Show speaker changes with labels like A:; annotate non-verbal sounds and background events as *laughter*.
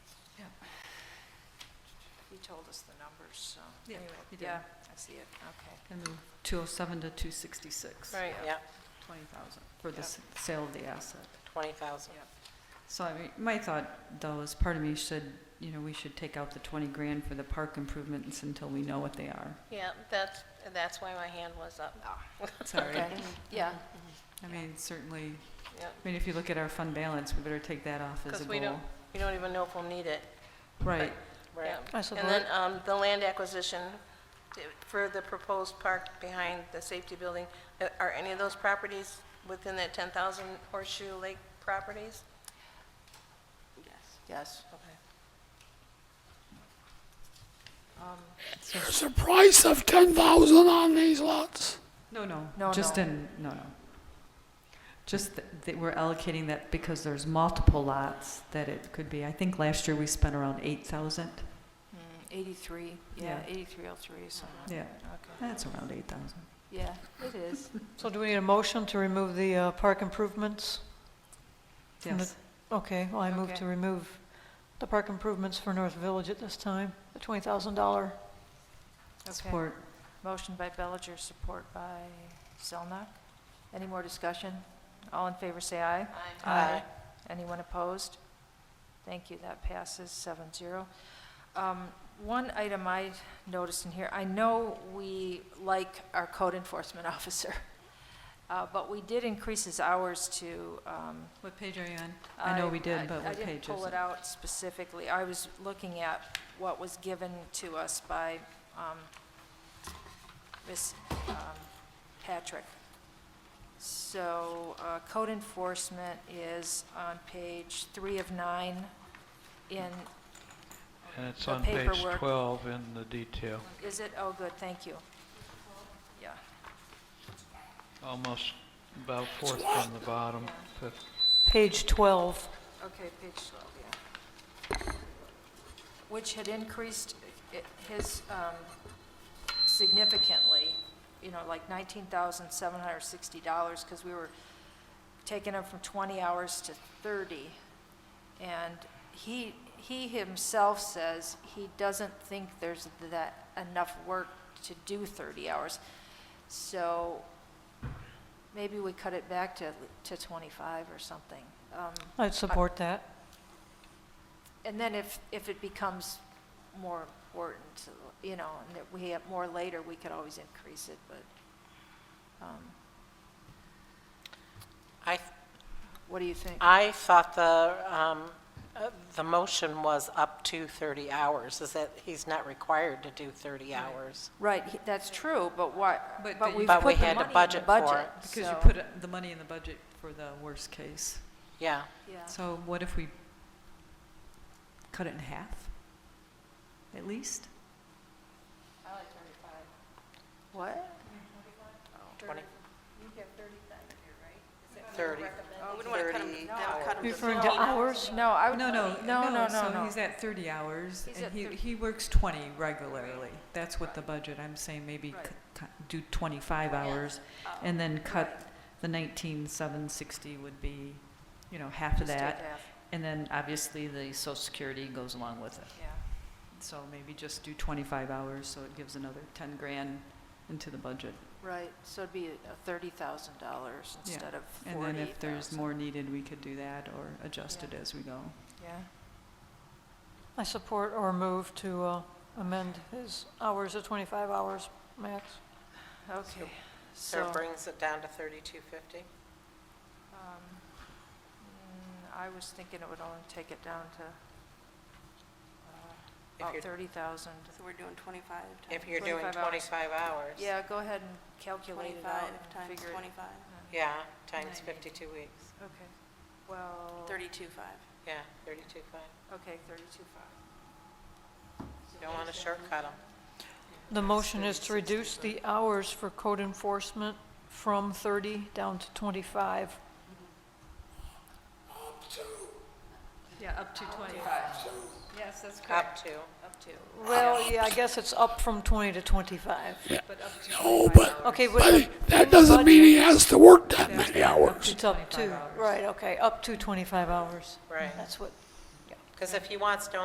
A: told us the numbers, so.
B: Yeah,
A: anyway,
B: you did.
A: Yeah, I see it, okay.
B: And then 207 to 266.
C: Right, yeah,
B: 20,000 for the
A: Yep.
B: s- sale of the asset.
C: twenty thousand.
A: Yep.
B: So I mean, my thought though is part of me should, you know, we should take out the 20 grand for the park improvements until we know what they are.
C: Yeah, that's, that's why my hand was up.
B: Sorry.
A: Okay, yeah,
B: I mean, certainly, I
C: Yep.
B: mean, if you look at our fund balance, we better take that off as a
C: Because
B: goal.
C: we don't, we don't even know if we'll need it.
B: Right,
C: Right.
D: I support.
C: And then um, the land acquisition t- for the proposed park behind the safety building, uh, are any of those properties within that 10,000 Horseshoe Lake properties?
A: yes.
C: Okay.
E: There's a price of ten thousand on these lots.
B: no, no.
A: No,
B: Just
A: no.
B: in, no, no. Just th- that we're allocating that because there's multiple lots that it could be. I think last year we spent around 8,000.
A: Mm, Eighty-three, yeah,
B: Yeah.
A: eighty-three oh three, something.
B: Yeah,
A: Okay,
B: that's around 8,000.
A: yeah, it is.
D: So do we need a motion to remove the uh, park improvements? From the-
B: Yes.
D: Okay, well, I move
A: Okay.
D: to remove the park improvements for North Village at this time, the $20,000.
A: Okay.
B: Support.
A: *laughs* Motion by Bellinger, support by Zelnok. Any more discussion? All in favor, say aye.
C: Aye.
A: Anyone opposed? Thank you, that passes seven zero. Um, One item I noticed in here, I know we like our code enforcement *laughs* officer, uh, but we did increase his hours to, um,
B: What page are you on? I know we
A: I-
B: did, but what
A: I
B: page
A: didn't
B: is
A: pull it out specifically. I was looking at what was given to us by um, Ms. um, Patrick. So uh, code enforcement is on page three of nine in,
F: And it's
A: The
F: on page
A: paperwork.
F: 12 in the detail,
A: is it? Oh, good, thank you. Yeah,
F: almost about fourth from the bottom, fifth.
D: Page 12.
A: okay, page 12, yeah. Which had increased i- his um, significantly, you know, like $19,760, because we were taking him from 20 hours to 30. And he, he himself says he doesn't think there's that enough work to do 30 hours. So maybe we cut it back to, to 25 or something. Um,
D: I'd support that.
A: and then if, if it becomes more important, you know, and that we have more later, we could always increase it, but um,
C: I,
A: what do you think?
C: I thought the, um, uh, the motion was up to thirty hours, is that he's not required to do thirty hours.
A: Right, he- that's true, but why,
B: But
A: but
B: the-
A: we've
C: But we
A: put the
C: had to
A: money in the
C: budget for
A: budget.
C: it.
B: Because you
A: so-
B: put uh, the money in the budget for the worst case.
C: Yeah,
A: Yeah.
B: So what if we cut it in half, at least?
A: What?
C: twenty. Thirty.
D: Referring to hours?
A: No, I would.
B: No, no,
A: No, no, no,
B: So
A: no.
B: he's at 30 hours,
A: He's at
B: and he,
A: thir-
B: he works 20 regularly. That's what the budget, I'm saying maybe
A: Right. Oh.
B: c- cut- do 25 hours, and then cut the 19,760 would be, you know, half of
A: Just take
B: that.
A: half,
B: And then obviously the social security goes along with it.
A: Yeah.
B: So maybe just do 25 hours, so it gives another 10 grand into the budget.
A: Right, so it'd be uh, $30,000
B: Yeah.
A: instead of
B: And then if there's
A: 48,000.
B: more needed, we could do that or adjust it
A: Yeah.
B: as we go.
A: Yeah,
D: I support or move to uh, amend his hours to 25 hours max.
A: okay,
C: So
A: so.
C: it brings it down to thirty-two fifty?
A: Um, mm, I was thinking it would only take it down to uh,
C: If
A: about
C: you're-
A: 30,000.
G: So we're doing 25 times.
C: If you're doing
A: 25 hours.
C: twenty-five hours.
A: Yeah, go ahead and calculate it out
G: 25
A: and
G: times
A: figure it.
G: 25,
C: Yeah, times fifty-two weeks,
A: Okay, well,
G: 32.5.
C: yeah, thirty-two five.
A: okay, 32.5.
C: You don't want to shortcut them.
D: The motion is to reduce the hours for code enforcement from 30 down to 25.
A: Yeah, up to 25. Yes, that's
C: Up to,
A: Up to.
D: Well, yeah, I guess it's up from 20 to 25.
E: No, but
D: Okay, with the-
E: but
D: in
E: that
D: the
E: doesn't mean he
D: budget,
E: has to work that many hours.
D: It's up to, right, okay, up to 25 hours.
C: right.
D: That's what
C: Because if he wants to